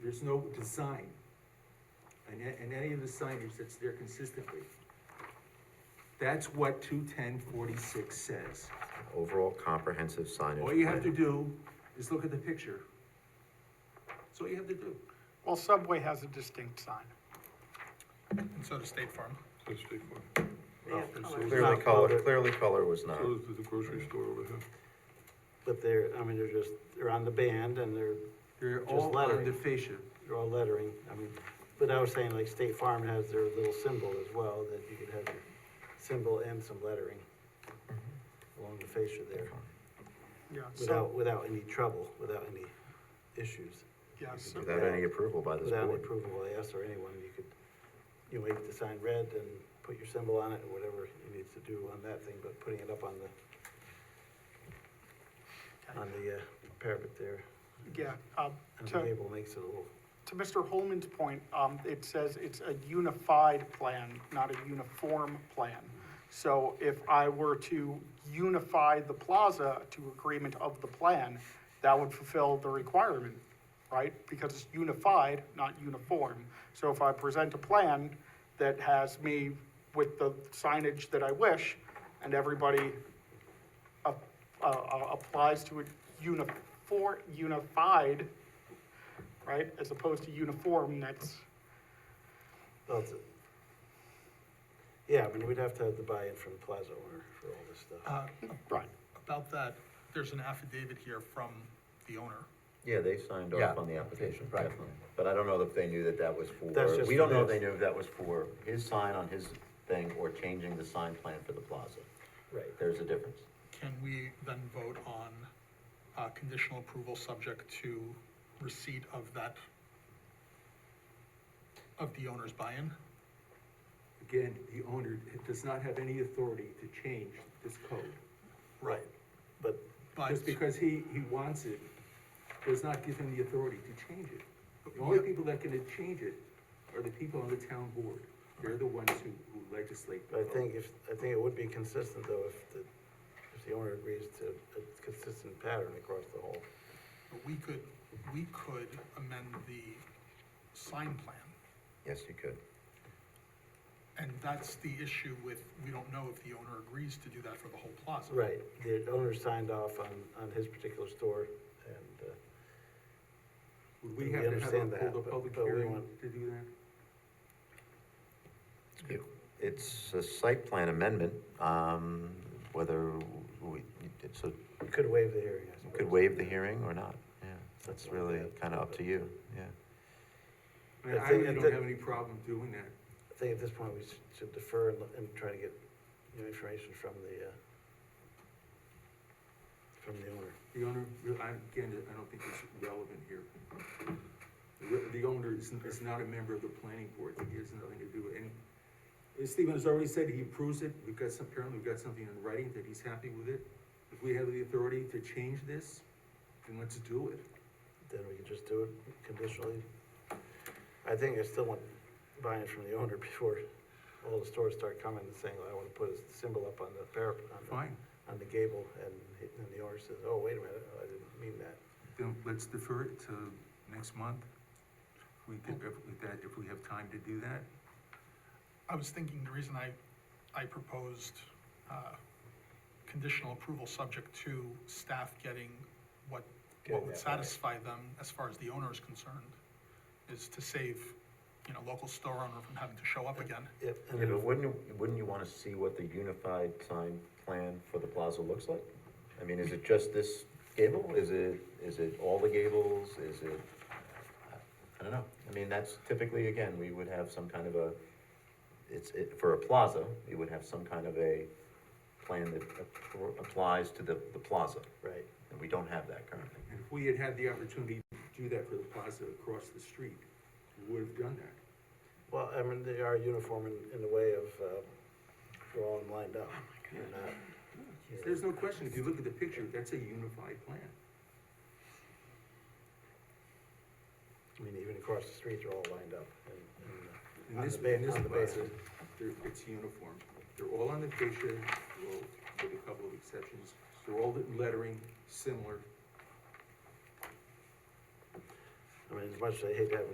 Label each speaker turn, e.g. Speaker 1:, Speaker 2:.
Speaker 1: there's no design. And, a- and any of the signage that's there consistently. That's what two ten forty-six says.
Speaker 2: Overall comprehensive signage.
Speaker 1: All you have to
Speaker 2: plan.
Speaker 1: do is look at the picture. That's all you have to do.
Speaker 3: Well, Subway has a distinct sign.
Speaker 4: And so does State Farm.
Speaker 5: That's state farm.
Speaker 6: They have
Speaker 7: Oh,
Speaker 6: colors.
Speaker 2: Clearly
Speaker 7: Not
Speaker 2: color,
Speaker 7: colored.
Speaker 2: clearly color was not.
Speaker 5: So is the grocery store over here.
Speaker 7: But they're, I mean, they're just, they're on the band and they're,
Speaker 1: They're
Speaker 7: Just
Speaker 1: all on
Speaker 7: lettering.
Speaker 1: the fascia.
Speaker 7: they're all lettering, I mean, but I was saying like State Farm has their little symbol as well, that you could have your symbol and some lettering along the fascia there,
Speaker 3: Yeah, so,
Speaker 7: without, without any trouble, without any issues.
Speaker 3: yeah, so,
Speaker 2: Without any approval by this
Speaker 7: Without any
Speaker 2: board.
Speaker 7: approval by us or anyone, you could, you know, make the sign red and put your symbol on it, or whatever you need to do on that thing, but putting it up on the, on the uh, parapet there,
Speaker 3: yeah, um,
Speaker 7: on the
Speaker 3: to,
Speaker 7: table makes it a little.
Speaker 3: to Mr. Holman's point, um, it says it's a unified plan, not a uniform plan. So if I were to unify the plaza to agreement of the plan, that would fulfill the requirement, right? Because it's unified, not uniform. So if I present a plan that has me with the signage that I wish, and everybody a- a- a- applies to a unifor, unified, right, as opposed to uniform, that's,
Speaker 7: Well, it's a- Yeah, I mean, we'd have to have the buy-in from Plaza owner for all this stuff.
Speaker 4: Uh,
Speaker 3: right.
Speaker 4: About that, there's an affidavit here from the owner.
Speaker 2: Yeah, they signed
Speaker 8: Yeah.
Speaker 2: off on the application,
Speaker 8: Right.
Speaker 2: definitely. But I don't know if they knew that that was
Speaker 7: That's
Speaker 2: for,
Speaker 7: just
Speaker 2: we don't
Speaker 7: for
Speaker 2: know if they
Speaker 7: this.
Speaker 2: knew if that was for his sign on his thing or changing the sign plan for the plaza.
Speaker 7: Right.
Speaker 2: There's a difference.
Speaker 4: Can we then vote on, uh, conditional approval subject to receipt of that, of the owner's buy-in?
Speaker 1: Again, the owner does not have any authority to change this code.
Speaker 4: Right.
Speaker 7: But,
Speaker 4: But,
Speaker 1: Just because he, he wants it, does not give him the authority to change it. The only people that can change it are the people on the town board. They're the ones who, who legislate.
Speaker 7: but I think if, I think it would be consistent though if the, if the owner agrees to a consistent pattern across the whole.
Speaker 4: but we could, we could amend the sign plan.
Speaker 2: Yes, you could.
Speaker 4: And that's the issue with, we don't know if the owner agrees to do that for the whole plaza.
Speaker 7: Right, the owner signed off on, on his particular store and, uh,
Speaker 1: Would we
Speaker 7: we
Speaker 1: have to have
Speaker 7: understand
Speaker 1: a, hold
Speaker 7: that,
Speaker 1: a
Speaker 7: but-
Speaker 1: public
Speaker 7: but we
Speaker 1: hearing
Speaker 7: want-
Speaker 1: to do that?
Speaker 2: It- It's a site plan amendment, um, whether we, it's a,
Speaker 7: we uh, could waive the hearing, I suppose.
Speaker 2: could waive the hearing or not, yeah. That's really kind of up to you, yeah.
Speaker 1: I mean,
Speaker 7: I
Speaker 1: I
Speaker 7: think- I
Speaker 1: really don't
Speaker 7: think-
Speaker 1: have any problem doing that.
Speaker 7: I think at this point, we should- should defer and, let- and try to get, you know, information from the, uh, from the owner.
Speaker 1: The owner, I, again, I don't think it's relevant here. The- The owner is, is not a member of the planning board, he has nothing to do with any. and Stephen has already said he approves it, we've got some, apparently we've got something in writing that he's happy with it. If we have the authority to change this, then let's do it.
Speaker 7: then we can just do it conditionally. I think I still want buy-in from the owner before all the stores start coming and saying, I wanna put a symbol up on the parapet, on
Speaker 1: Fine,
Speaker 7: the, on the gable, and he- then the owner says, oh, wait a minute, I didn't mean that.
Speaker 1: then let's defer it to next month. If we could, if if that, if we have time to do that.
Speaker 4: I was thinking the reason I, I proposed, uh, conditional approval subject to staff getting what, what would satisfy them as far as the owner is concerned, is to save, you know, local store owner from having to show up again.
Speaker 7: Yep, and
Speaker 2: Yeah, but
Speaker 7: then,
Speaker 2: wouldn't, wouldn't you wanna see what the unified sign plan for the plaza looks like? I mean, is it just this gable? Is it, is it all the gables? Is it, I don't know. I mean, that's typically, again, we would have some kind of a, it's, it, for a plaza, you would have some kind of a plan that appro- applies to the, the plaza,
Speaker 7: right,
Speaker 2: and we don't have that currently.
Speaker 1: And if we had had the opportunity to do that for the plaza across the street, we would have done that.
Speaker 7: well, I mean, they are uniform in, in the way of, uh, they're all lined
Speaker 1: Oh
Speaker 7: up. They're not-
Speaker 1: There's no question, if you look at the picture, that's a unified plan.
Speaker 7: I mean, even across the street, they're all lined up, and, and, uh,
Speaker 1: In
Speaker 7: On
Speaker 1: this,
Speaker 7: the ba-
Speaker 1: in this
Speaker 7: on the
Speaker 1: plaza,
Speaker 7: basis.
Speaker 1: they're, it's uniform. They're all on the fascia, they're all- with a couple of exceptions. They're all in lettering similar.
Speaker 7: I mean, as much as I hate having